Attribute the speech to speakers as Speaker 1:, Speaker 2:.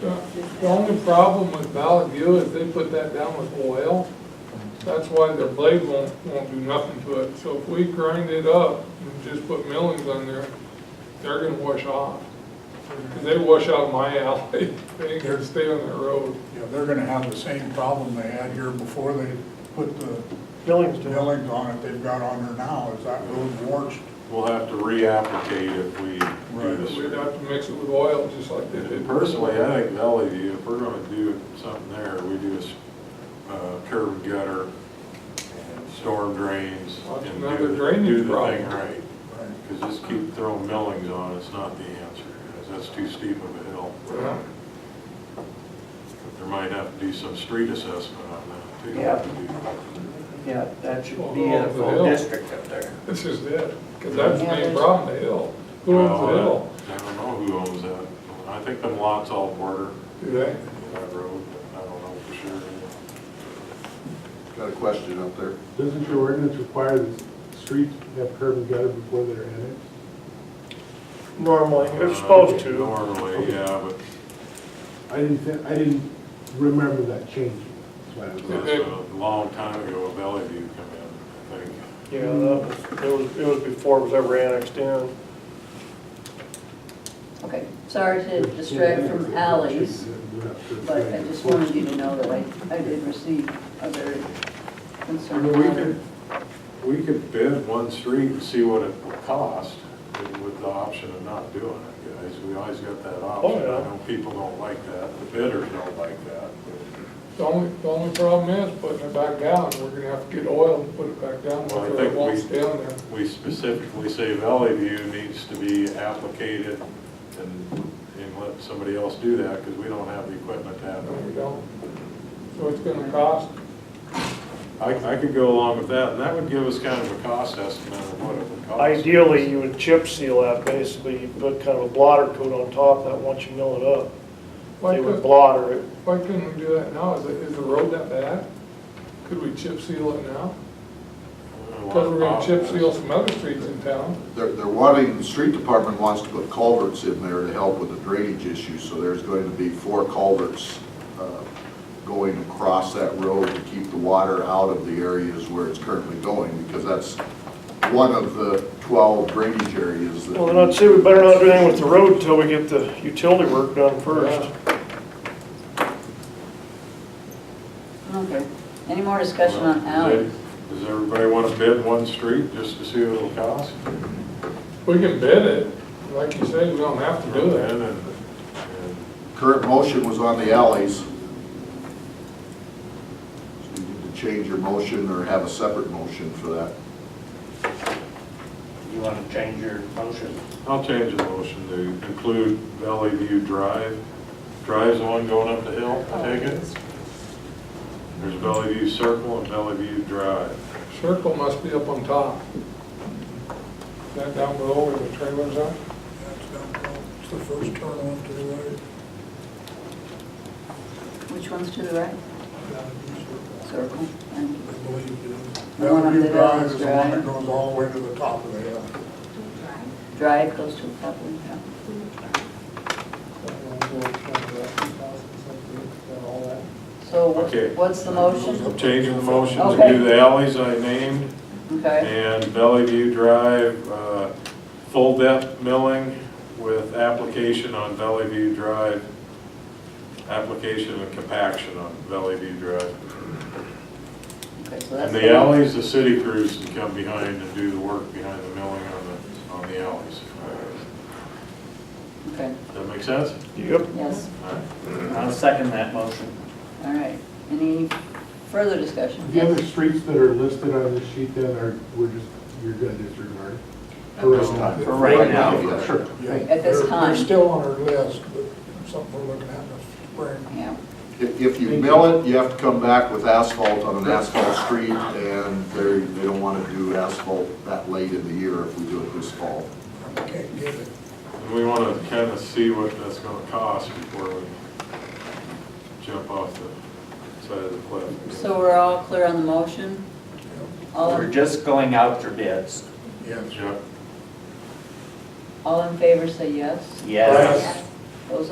Speaker 1: The the only problem with Valley View is they put that down with oil. That's why their blade won't, won't do nothing to it. So if we grind it up and just put millings on there, they're gonna wash off. 'Cause they wash out of my alley. They ain't gonna stay on that road.
Speaker 2: You know, they're gonna have the same problem they had here before they put the
Speaker 3: Billings doing.
Speaker 2: millings on it they've got on there now, is that road washed?
Speaker 4: We'll have to reapplicate if we do
Speaker 2: Right.
Speaker 4: this.
Speaker 1: We'd have to mix it with oil just like they did.
Speaker 4: Personally, I think Valley View, if we're gonna do something there, we do a s- uh, curb and gutter and storm drains.
Speaker 1: That's
Speaker 4: and do
Speaker 1: another
Speaker 4: the-
Speaker 1: drainage
Speaker 4: Do the
Speaker 1: problem.
Speaker 4: thing right, because just keep throwing millings on, it's not the answer, because that's too steep of a hill.
Speaker 1: Yeah.
Speaker 4: But There might have to be some street assessment on that too.
Speaker 5: Yeah. Yeah, that should be in a full district up there.
Speaker 1: That's just it. 'Cause that's the
Speaker 6: Yeah,
Speaker 1: main
Speaker 6: there's-
Speaker 1: problem, the hill. Who owns the hill?
Speaker 4: Well, I I don't know who owns that, I think them lots all border
Speaker 1: Do they?
Speaker 4: that road, but I don't know for sure.
Speaker 7: Got a question out there.
Speaker 8: Doesn't your ordinance require the streets to have curb and gutter before they're annexed?
Speaker 3: Normally, they're supposed
Speaker 4: Uh,
Speaker 3: to.
Speaker 4: Normally, yeah, but
Speaker 8: I didn't, thi- I didn't remember that changing. That's
Speaker 4: it
Speaker 8: why I
Speaker 4: was a long time ago, Valley View come in, I think.
Speaker 3: Yeah, that was, it was, it was before it was ever annexed in.
Speaker 6: Okay, sorry to
Speaker 8: was-
Speaker 6: distract from alleys,
Speaker 8: We're not sure.
Speaker 6: but I just wanted you to know that I, I did receive a very
Speaker 4: I
Speaker 6: concerned
Speaker 4: mean, we
Speaker 6: letter.
Speaker 4: could, we could bid one street and see what it would cost with the option of not doing it, guys. We always got that option. I
Speaker 3: Oh, yeah.
Speaker 4: know people don't like that, the bidders don't like that.
Speaker 1: The only, the only problem is putting it back down, we're gonna have to get oil and put it back down,
Speaker 4: Well, I
Speaker 1: whether it
Speaker 4: think
Speaker 1: won't
Speaker 4: we-
Speaker 1: stay on there.
Speaker 4: We specifically say Valley View needs to be applicated and, and let somebody else do that because we don't have the equipment to have
Speaker 1: No,
Speaker 4: it.
Speaker 1: we don't. So it's gonna cost,
Speaker 4: I, I could go along with that, and that would give us kind of a cost estimate of what it would cost.
Speaker 3: Ideally, you would chip seal that, basically, you put kind of a blotter coat on top of that once you mill it up.
Speaker 1: why
Speaker 3: They would
Speaker 1: couldn't,
Speaker 3: blotter it.
Speaker 1: why couldn't we do that now? Is, it- is the road that bad? Could we chip seal it now? Because we're gonna chip seal some other streets in town.
Speaker 7: They're, they're wanting, the street department wants to put culverts in there to help with the drainage issue, so there's going to be four culverts uh, going across that road to keep the water out of the areas where it's currently going, because that's one of the 12 drainage areas that.
Speaker 3: Well, then I'd say we better not do anything with the road until we get the utility work done first.
Speaker 6: Okay, any more discussion on alleys?
Speaker 4: Does everybody want to bid one street just to see what it'll cost?
Speaker 1: We can bid it, like you say, we don't have to do that.
Speaker 4: And- and-
Speaker 7: Current motion was on the alleys. So you need to change your motion or have a separate motion for that.
Speaker 5: You want to change your motion?
Speaker 4: I'll change the motion to include Valley View Drive. Drive's the one going up the hill,
Speaker 6: Oh,
Speaker 4: I take it? There's Valley View Circle and Valley View Drive.
Speaker 1: Circle must be up on top. Is That down below where the trailers are?
Speaker 2: That's down below. It's the first turn on to the right.
Speaker 6: Which one's to the right? Circle, and
Speaker 2: I believe it is.
Speaker 6: The one up
Speaker 2: Valley View
Speaker 6: the
Speaker 2: Drive is
Speaker 6: Dallas
Speaker 2: the one
Speaker 6: Drive.
Speaker 2: that goes all the way to the top of the hill.
Speaker 6: drive goes to a couple, yeah. So
Speaker 4: Okay.
Speaker 6: wh- what's the motion?
Speaker 4: I'm changing the motion to
Speaker 6: Okay.
Speaker 4: do the alleys I named.
Speaker 6: Okay,
Speaker 4: And Valley View Drive, uh, full depth milling with application on Valley View Drive, application and compaction on Valley View Drive.
Speaker 6: okay, so that's.
Speaker 4: And the alleys, the city crews can come behind and do the work behind the milling on the, on the alleys.
Speaker 6: Okay,
Speaker 4: Does that make sense?
Speaker 3: Yep.
Speaker 6: yes,
Speaker 4: All right.
Speaker 5: I'll second that motion.
Speaker 6: all right. Any further discussion?
Speaker 8: The other streets that are listed on this sheet then are, we're just, you're gonna disregard. For
Speaker 4: This
Speaker 8: now.
Speaker 4: time.
Speaker 5: For right now,
Speaker 7: yeah.
Speaker 8: Sure, thank you.
Speaker 6: At this
Speaker 2: They're-
Speaker 6: time.
Speaker 2: They're still on our list, but something we're looking at in the spring.
Speaker 6: Yeah,
Speaker 7: If, if you mill it, you have to come back with asphalt on an asphalt street, and they, they don't wanna do asphalt that late in the year if we do it this fall.
Speaker 2: I can't get it.
Speaker 4: And we want to kind of see what that's going to cost before we jump off the side of the cliff.
Speaker 6: so we're all clear on the motion? All,
Speaker 5: We're
Speaker 6: in-
Speaker 5: just going out for bids.
Speaker 2: Yes.
Speaker 4: Yep.
Speaker 6: all in favor say yes.
Speaker 5: Yes.
Speaker 6: Those